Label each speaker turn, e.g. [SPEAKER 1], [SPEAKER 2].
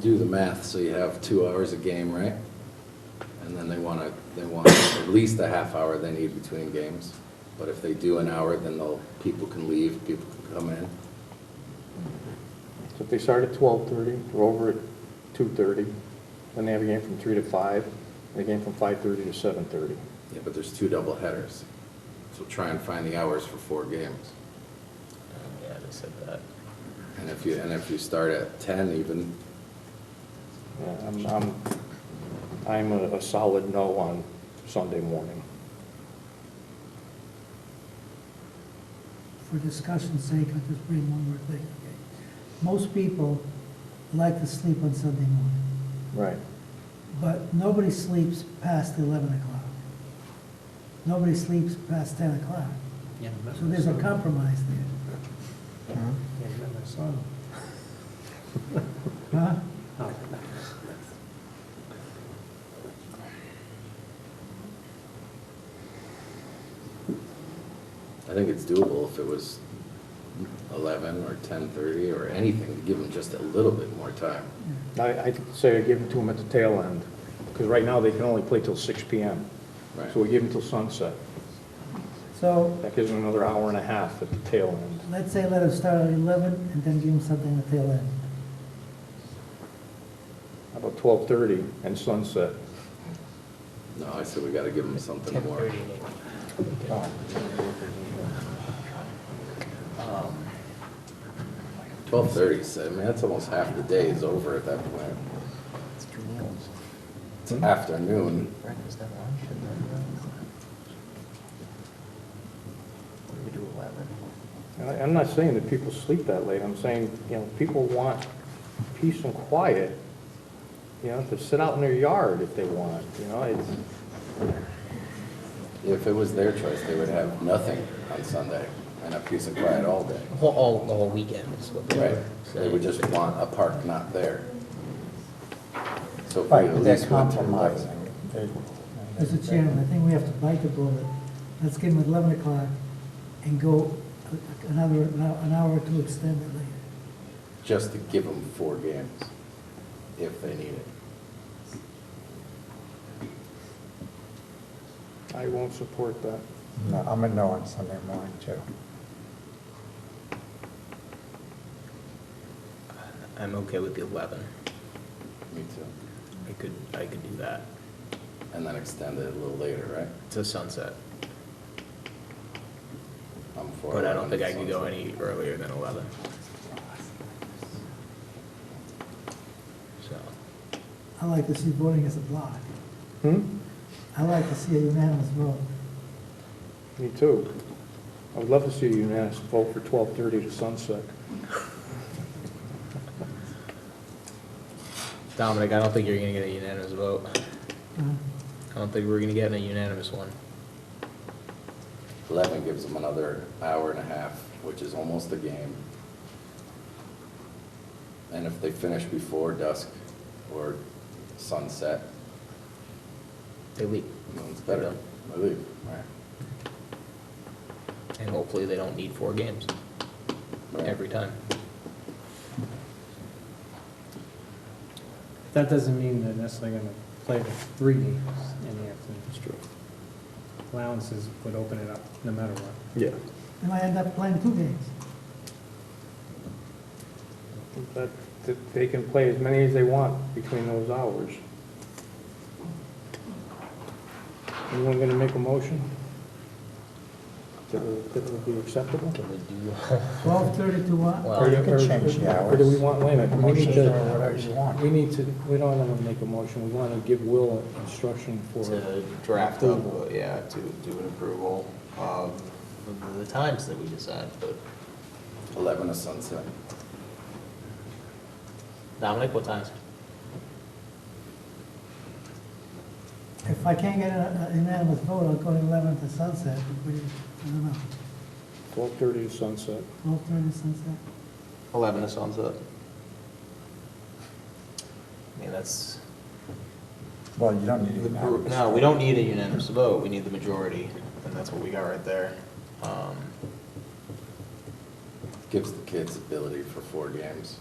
[SPEAKER 1] do the math, so you have two hours a game, right? And then they want to, they want at least a half hour they need between games. But if they do an hour, then they'll, people can leave, people can come in.
[SPEAKER 2] So if they start at twelve-thirty, they're over at two-thirty, then they have a game from three to five, and a game from five-thirty to seven-thirty.
[SPEAKER 1] Yeah, but there's two double headers. So try and find the hours for four games.
[SPEAKER 3] Yeah, they said that.
[SPEAKER 1] And if you, and if you start at 10 even,
[SPEAKER 2] Yeah, I'm, I'm, I'm a a solid no on Sunday morning.
[SPEAKER 4] for discussion's sake, I'll just bring one more thing. okay? Most people like to sleep on Sunday morning,
[SPEAKER 2] Right.
[SPEAKER 4] but nobody sleeps past 11 o'clock. Nobody sleeps past 10 o'clock. So there's a compromise there. Huh?
[SPEAKER 1] I think it's doable if it was 11 or 10:30 or anything, to give them just a little bit more time.
[SPEAKER 2] I, I say I give them to them at the tail end, because right now they can only play till six P M.
[SPEAKER 1] Right.
[SPEAKER 2] So we give them till sunset.
[SPEAKER 4] So
[SPEAKER 2] That gives them another hour and a half at the tail end.
[SPEAKER 4] let's say let them start at 11 and then give them something at the tail end.
[SPEAKER 2] How about twelve-thirty and sunset?
[SPEAKER 1] No, I said we got to give them something more.
[SPEAKER 3] Um,
[SPEAKER 1] 12:30, so, I mean, that's almost half the day is over at that point.
[SPEAKER 5] It's two meals.
[SPEAKER 1] It's afternoon.
[SPEAKER 5] Breakfast and lunch and then. We do eleven.
[SPEAKER 2] And I- I'm not saying that people sleep that late, I'm saying, you know, people want peace and quiet, you know, to sit out in their yard if they want, you know, it's,
[SPEAKER 1] If it was their choice, they would have nothing on Sunday and a piece of quiet all day.
[SPEAKER 3] Whole- All, the whole weekend is what they
[SPEAKER 1] Right,
[SPEAKER 3] were
[SPEAKER 1] they would
[SPEAKER 3] saying.
[SPEAKER 1] just want a park not there. So if we
[SPEAKER 5] Right,
[SPEAKER 1] at
[SPEAKER 5] they're
[SPEAKER 1] least went to eleven.
[SPEAKER 5] compromising. They-
[SPEAKER 4] Mr. Chairman, I think we have to bite the bullet. Let's give them 11 o'clock and go another, an hour or two extended later.
[SPEAKER 1] just to give them four games if they need it.
[SPEAKER 2] I won't support that.
[SPEAKER 5] No, I'm a no on Sunday morning too.
[SPEAKER 3] I'm okay with the eleven.
[SPEAKER 1] Me too.
[SPEAKER 3] I could, I could do that
[SPEAKER 1] And then extend it a little later,
[SPEAKER 3] to sunset,
[SPEAKER 1] right? I'm for
[SPEAKER 3] but I don't
[SPEAKER 1] 11
[SPEAKER 3] think I could go
[SPEAKER 1] sunset.
[SPEAKER 3] any earlier than eleven. So,
[SPEAKER 4] I like to see voting as a block.
[SPEAKER 2] Hmm?
[SPEAKER 4] I like to see a unanimous vote.
[SPEAKER 2] Me too. I would love to see a unanimous vote for 12:30 to sunset.
[SPEAKER 3] Dominic, I don't think you're gonna get a unanimous vote.
[SPEAKER 4] Uh,
[SPEAKER 3] I don't think we're gonna get a unanimous one.
[SPEAKER 1] Eleven gives them another hour and a half, which is almost a game. And if they finish before dusk or sunset,
[SPEAKER 3] They leave,
[SPEAKER 1] then it's better. I leave, right?
[SPEAKER 3] and hopefully they don't need four games
[SPEAKER 1] Right.
[SPEAKER 3] every time.
[SPEAKER 6] That doesn't mean they're necessarily going to play the three games in the afternoon. That's true. Allowances would open it up no matter what.
[SPEAKER 2] Yeah.
[SPEAKER 4] They might end up playing two games.
[SPEAKER 2] But th- they can play as many as they want between those hours. Anyone going to make a motion? That would that would be acceptable?
[SPEAKER 3] Can we do?
[SPEAKER 4] Twelve thirty to what?
[SPEAKER 5] Or
[SPEAKER 3] Well,
[SPEAKER 5] you could change the
[SPEAKER 2] Or do we
[SPEAKER 5] hours.
[SPEAKER 2] want, wait a minute, we need
[SPEAKER 5] Motions
[SPEAKER 2] to-
[SPEAKER 5] or whatever you want.
[SPEAKER 2] We need to, we don't want to make a motion, we want to give Will instruction for.
[SPEAKER 3] to draft up,
[SPEAKER 2] approval.
[SPEAKER 3] uh, yeah, to do an approval of the- the times that we decide, but
[SPEAKER 1] Eleven to sunset.
[SPEAKER 3] Dominic, what times?
[SPEAKER 4] If I can't get a a unanimous vote, I'll go to eleven to sunset, but we- I don't know,
[SPEAKER 2] 12:30 to sunset.
[SPEAKER 4] twelve thirty to sunset?
[SPEAKER 3] Eleven is on the. I mean, that's,
[SPEAKER 5] Well, you don't need
[SPEAKER 3] the
[SPEAKER 5] an
[SPEAKER 3] br-
[SPEAKER 5] hour.
[SPEAKER 3] no, we don't need a unanimous vote, we need the majority, and that's what we got right there. Um,
[SPEAKER 1] Gives the kids ability for four games.